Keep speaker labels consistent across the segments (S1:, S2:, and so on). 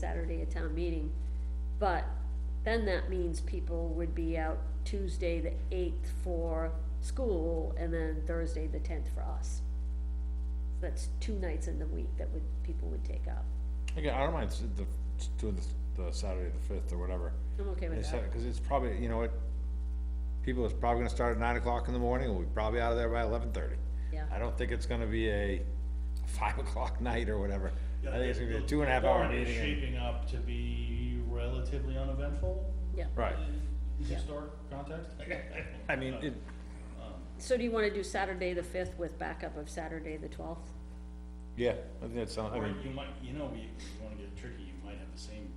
S1: Saturday at town meeting. But then that means people would be out Tuesday, the eighth for school, and then Thursday, the tenth for us. That's two nights in the week that would, people would take up.
S2: Again, I don't mind s- the, doing the, the Saturday the fifth or whatever.
S1: I'm okay with
S2: It's,
S1: that.
S2: cause it's probably, you know what, people is probably gonna start at nine o'clock in the morning, and we'll be probably out of there by eleven thirty.
S1: Yeah.
S2: I don't think it's gonna be a five o'clock night or whatever. I think it's gonna be a two and a half hour
S3: warrant is
S2: meeting. and-
S3: Shaping up to be relatively uneventful
S1: Yeah.
S2: Right,
S3: in
S1: Yeah.
S3: historic context.
S2: I mean, it,
S1: So do you wanna do Saturday the fifth with backup of Saturday the twelfth?
S2: yeah, I think that's, I
S3: Or
S2: mean,
S3: you might, you know, you, you wanna get tricky, you might have the same,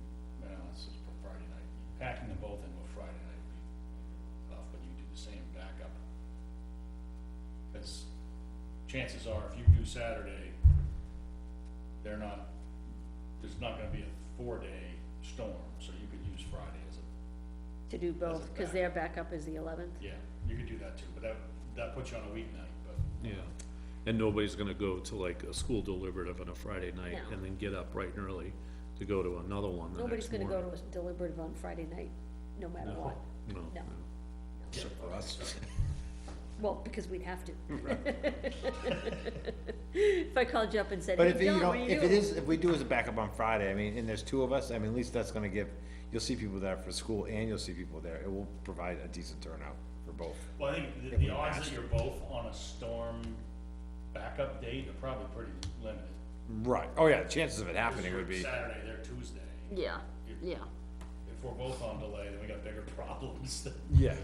S3: well, this is for Friday night, packing them both in with Friday night would be tough, but you do the same backup. Cause chances are, if you do Saturday, they're not, there's not gonna be a four-day storm, so you could use Friday as a
S1: To do both, cause their backup is the eleventh?
S3: Yeah, you could do that too, but that, that puts you on a weeknight, but
S4: Yeah, and nobody's gonna go to like a school deliberative on a Friday night
S1: No.
S4: and then get up bright and early to go to another one the
S1: Nobody's
S4: next
S1: gonna go
S4: morning.
S1: to a deliberative on Friday night, no matter what.
S4: No,
S1: No.
S4: no.
S2: except for us.
S1: Well, because we'd have to. If I called you up and said,
S2: But if,
S1: hey,
S2: you
S1: John,
S2: know,
S1: what do you
S2: if it
S1: do?
S2: is, if we do as a backup on Friday, I mean, and there's two of us, I mean, at least that's gonna give, you'll see people there for school and you'll see people there. It will provide a decent turnout for both.
S3: Well, I think the,
S2: we
S3: the odds
S2: asked.
S3: that you're both on a storm backup date are probably pretty limited.
S2: Right, oh yeah, chances of it happening would be,
S3: Saturday, they're Tuesday.
S1: Yeah, yeah.
S3: If we're both on delay, then we got bigger problems.
S2: yeah,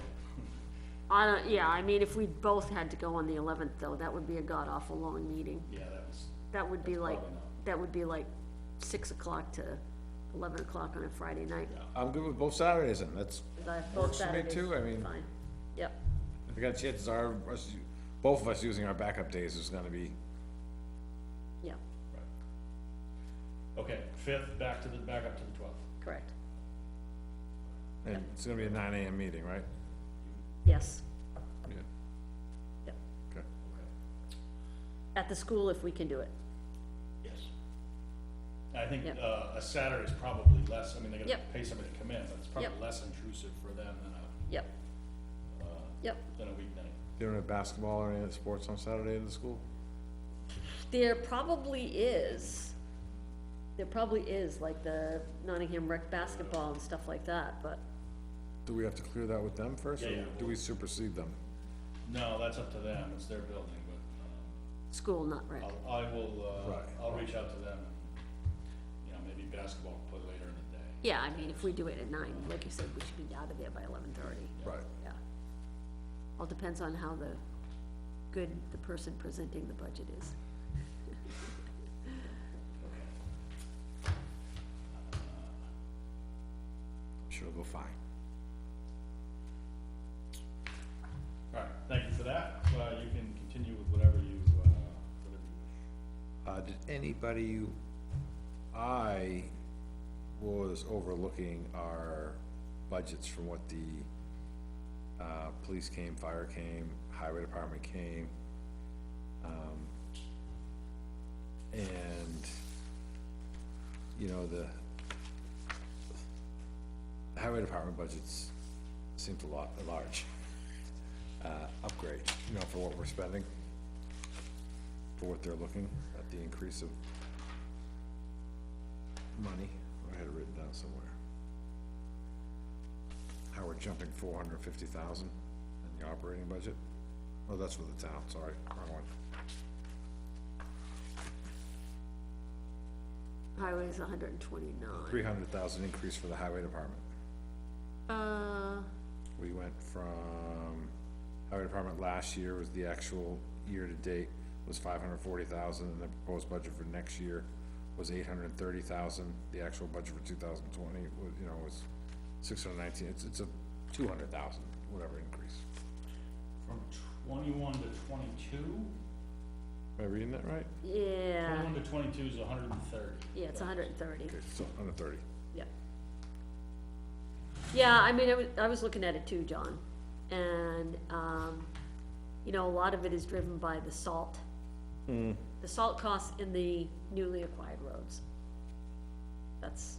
S1: I don't, yeah, I mean, if we both had to go on the eleventh though, that would be a god-awful long meeting.
S3: Yeah, that was,
S1: That would be like,
S3: probably not.
S1: that would be like six o'clock to eleven o'clock on a Friday night.
S2: I'm good with both Saturdays and that's,
S1: The- both
S2: Works for me
S1: Saturdays,
S2: too, I mean-
S1: Fine, yep,
S2: we got chances are, us, both of us using our backup days is gonna be,
S1: yeah,
S3: okay, fifth, back to the, back up to the twelfth.
S1: correct,
S2: and it's gonna be a nine AM meeting, right?
S1: yes.
S2: Yeah.
S1: Yep.
S2: Okay.
S1: At the school if we can do it,
S3: Yes. I think,
S1: Yep.
S3: uh, a Saturday's probably less, I mean, they gotta
S1: Yep.
S3: pay somebody to come in, but it's probably
S1: Yep.
S3: less intrusive for them than a,
S1: yep, yep.
S3: than a weeknight.
S2: You don't have basketball or any other sports on Saturday in the school?
S1: There probably is, there probably is, like the Nottingham rec basketball and stuff like that, but,
S2: Do we have to clear that with them first,
S3: Yeah,
S2: or
S3: yeah.
S2: do we supersede them?
S3: No, that's up to them, it's their building, but, um,
S1: school, not rec.
S3: I'll, I will,
S2: Right.
S3: uh, I'll reach out to them, you know, maybe basketball play later in the day.
S1: Yeah, I mean, if we do it at nine, like you said, we should be out of there by eleven thirty,
S2: Right.
S1: yeah. All depends on how the, good the person presenting the budget is.
S2: Sure, it'll go fine.
S3: All right, thank you for that, uh, you can continue with whatever you, uh, whatever you wish.
S2: Uh, did anybody, I was overlooking our budgets from what the, uh, police came, fire came, highway department came. Um, and, you know, the the highway department budgets seemed a lot, a large, uh, upgrade, you know, for what we're spending for what they're looking, at the increase of money, I had it written down somewhere. How we're jumping four hundred and fifty thousand in the operating budget, oh, that's for the town, sorry, wrong one.
S1: Highway's hundred and twenty-nine.
S2: Three hundred thousand increase for the highway department,
S1: Uh,
S2: we went from, highway department last year was the actual year-to-date was five hundred and forty thousand, and the proposed budget for next year was eight hundred and thirty thousand, the actual budget for two thousand twenty was, you know, was six hundred and nineteen, it's, it's a two hundred thousand, whatever increase.
S3: From twenty-one to twenty-two?
S2: Am I reading that right?
S1: yeah,
S3: Twenty-one to twenty-two is hundred and thirty.
S1: yeah, it's hundred and thirty.
S2: Okay, so under thirty.
S1: Yeah. Yeah, I mean, I was, I was looking at it too, John, and, um, you know, a lot of it is driven by the salt. The salt costs in the newly acquired roads. That's